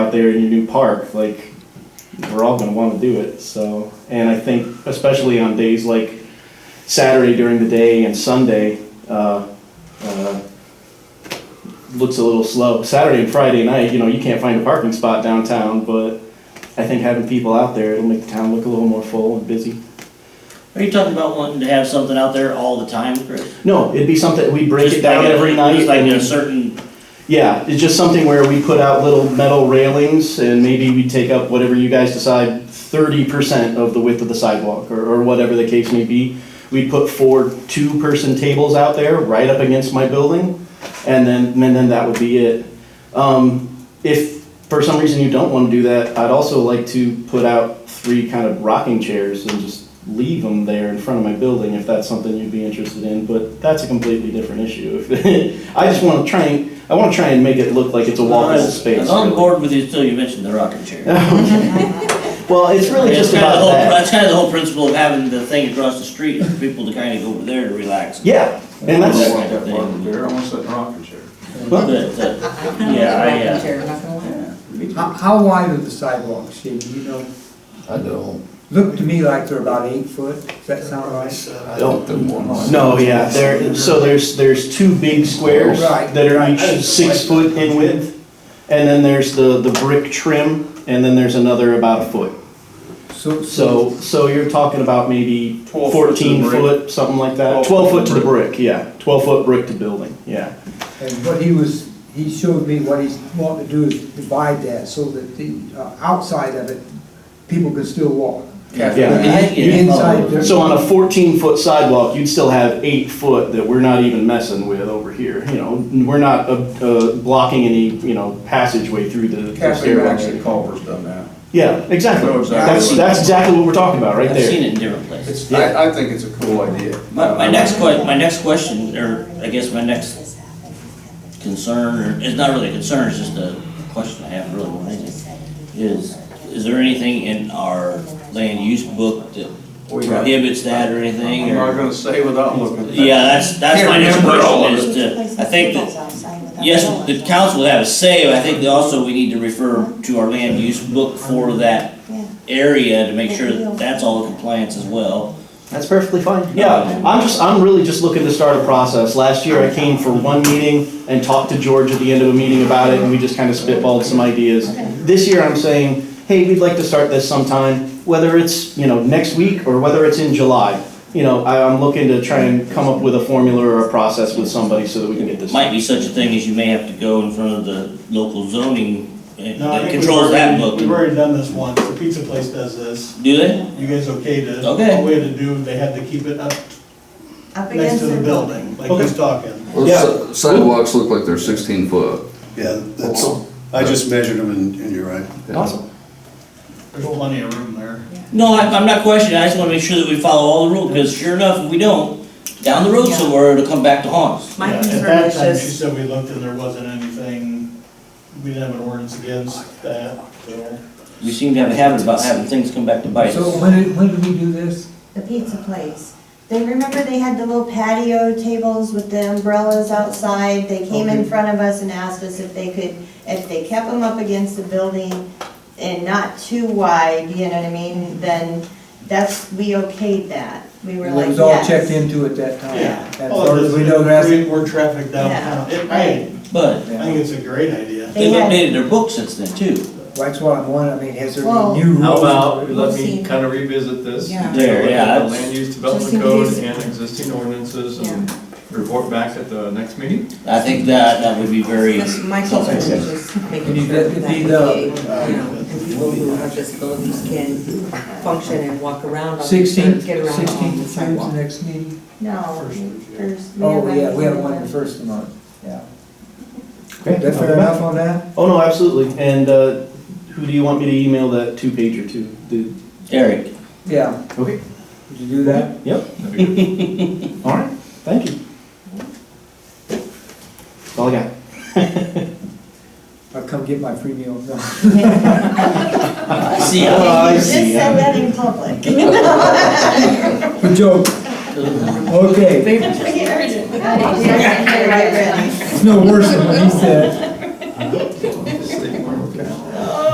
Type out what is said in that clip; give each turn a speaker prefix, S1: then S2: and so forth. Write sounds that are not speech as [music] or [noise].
S1: out there in your new park, like, we're all gonna wanna do it, so. And I think especially on days like Saturday during the day and Sunday, uh, uh, looks a little slow. Saturday and Friday night, you know, you can't find a parking spot downtown, but I think having people out there, it'll make the town look a little more full and busy.
S2: Are you talking about wanting to have something out there all the time, Chris?
S1: No, it'd be something, we break it
S2: Just like
S1: down
S2: a-
S1: every night.
S2: Just like
S1: and-
S2: a certain,
S1: Yeah, it's just something where we put out little metal railings and maybe we take up whatever you guys decide, thirty percent of the width of the sidewalk or, or whatever the case may be. We'd put four two-person tables out there right up against my building and then, and then that would be it. Um, if for some reason you don't want to do that, I'd also like to put out three kind of rocking chairs and just leave them there in front of my building if that's something you'd be interested in, but that's a completely different issue. [laughs] I just want to try and, I want to try and make it look like it's a walkable space.
S2: I'm on
S1: really.
S2: board with you until you mentioned the rocking
S1: [laughs]
S2: chair.
S1: Well, it's really
S2: That's
S1: just
S2: kind of the
S1: about
S2: whole,
S1: that.
S2: that's kind of the whole principle of having the thing across the street, for people to kind of go over there to relax.
S1: [laughs] Yeah, and
S3: I
S1: that's,
S3: want that rocking chair, I want that rocking chair.
S2: But, uh, yeah, I, uh,
S4: How, how wide are the sidewalks, Steve, you know?
S5: I don't,
S4: Look to me like they're about eight foot, does that sound right?
S5: I
S1: Oh.
S5: don't do one.
S1: no, yeah, there, so there's, there's two big squares
S3: Oh,
S4: Right,
S1: that are
S4: right.
S1: each six foot in width. And then there's the, the brick trim, and then there's another about a foot. So, so you're talking about maybe
S3: 12 foot to the
S1: fourteen
S3: brick.
S1: foot, something like that?
S3: 12
S1: Twelve
S3: foot
S1: foot to the
S3: brick.
S1: brick, yeah, twelve foot brick to building, yeah.
S4: And what he was, he showed me what he's wanting to do is divide that so that the uh, outside of it, people can still walk.
S1: Yeah.
S4: The inside, there-
S1: So on a fourteen foot sidewalk, you'd still have eight foot that we're not even messing with over here, you know? We're not, uh, uh, blocking any, you know, passageway through the- the
S3: Cafe Max
S1: stairwell.
S3: at Culver's done that.
S1: Yeah, exactly,
S3: I know exactly
S1: that's,
S3: what-
S1: that's exactly what we're talking about, right
S2: I've
S1: there.
S2: seen it in different places.
S3: It's, I, I think it's a cool idea. Uh,
S2: My, my next que, my next question, or I guess my next concern, or it's not really a concern, it's just a question I have really more than anything, is, is there anything in our land use book that
S3: We got-
S2: prohibits that or anything,
S3: I'm not
S2: or?
S3: gonna say without looking.
S2: Yeah, that's, that's my next
S3: Can't remember all
S2: question
S3: of
S2: is to, I think that, yes, the council would have a say, but I think that also we need to refer to our land use book for that area to make sure that that's all in compliance as well.
S1: That's perfectly fine. Yeah, I'm just, I'm really just looking to start a process. Last year, I came for one meeting and talked to George at the end of a meeting about it, and we just kind of spitballed some ideas. This year, I'm saying, hey, we'd like to start this sometime, whether it's, you know, next week or whether it's in July. You know, I, I'm looking to try and come up with a formula or a process with somebody so that we can get this.
S2: Might be such a thing as you may have to go in front of the local zoning uh,
S6: No, I
S2: that
S6: think we've
S2: controls that
S6: already-
S2: book.
S6: We've already done this once, the pizza place does this,
S2: Do they?
S6: you guys okay to?
S2: Okay.
S6: All we had to do, they had to keep it up
S7: Up
S6: next
S7: against
S6: to the building, like he's talking.
S5: Well,
S1: Yeah.
S5: si- Sidewalks look like they're sixteen foot.
S8: Yeah, that's, I just measured them and, and you're right.
S1: Awesome.
S6: There's plenty of room there.
S2: No, I- I'm not questioning, I just wanna make sure that we follow all the rules, because sure enough, if we don't, down the road
S7: Yeah.
S2: somewhere, it'll come back to haunt us.
S7: My
S6: Yeah,
S7: concern
S6: At that
S7: is
S6: time, she
S7: just-
S6: said we looked and there wasn't anything, we didn't have an ordinance against that, so.
S2: We seem to have a habit about having things come back to bite
S4: So
S2: us.
S4: when did, when did we do this?
S7: The pizza place. They, remember they had the little patio tables with the umbrellas outside? They came in
S4: Okay.
S7: front of us and asked us if they could, if they kept them up against the building and not too wide, you know what I mean? Then that's, we okayed that. We were
S4: It
S7: like, yes.
S4: was all checked into at that time. As
S6: All
S4: far
S6: it
S4: as
S6: is,
S4: we
S6: is
S4: know, that's.
S6: create more traffic downtown. It- I,
S2: But
S6: I think it's a great idea.
S2: they've
S7: They had-
S2: updated their book since then too.
S4: That's what I'm wondering, I mean, has there
S7: Well-
S4: been new rules?
S9: How about, let
S7: We'll see.
S9: me kind of revisit this.
S7: Yeah.
S2: There,
S9: Look
S2: yeah,
S9: at the
S2: that's-
S9: Land use
S7: Just in
S9: development code
S7: case.
S9: and existing ordinances and report back at the next meeting.
S2: I think that, that would be very
S7: My concern is
S2: helpful.
S7: just
S4: Can you
S7: making sure
S4: let it
S7: that,
S4: be
S7: you
S4: the- uh,
S7: know, people who have disabilities can function and walk around on the,
S4: Sixteen,
S7: get around on the
S4: sixteen,
S7: sidewalk.
S4: next meeting?
S7: No, there's.
S4: Oh, yeah, we have one the first of the month, yeah.
S1: Okay.
S4: That fair enough on that?
S1: Oh, no, absolutely. And, uh, who do you want me to email that two pager to? The-
S2: Eric,
S4: Yeah,
S1: Okay,
S4: would you do that?
S1: yep.
S9: That'd be good.
S1: [laughs] All right, thank you. That's all I got.
S4: I'll come get my free meal. [laughs] No.
S2: I see,
S1: Oh,
S2: I-
S1: I
S7: You just
S1: see,
S7: said
S1: yeah.
S7: that in [laughs] public.
S4: Good joke. Okay,
S7: Yeah, I did.
S4: it's no worse than what he said.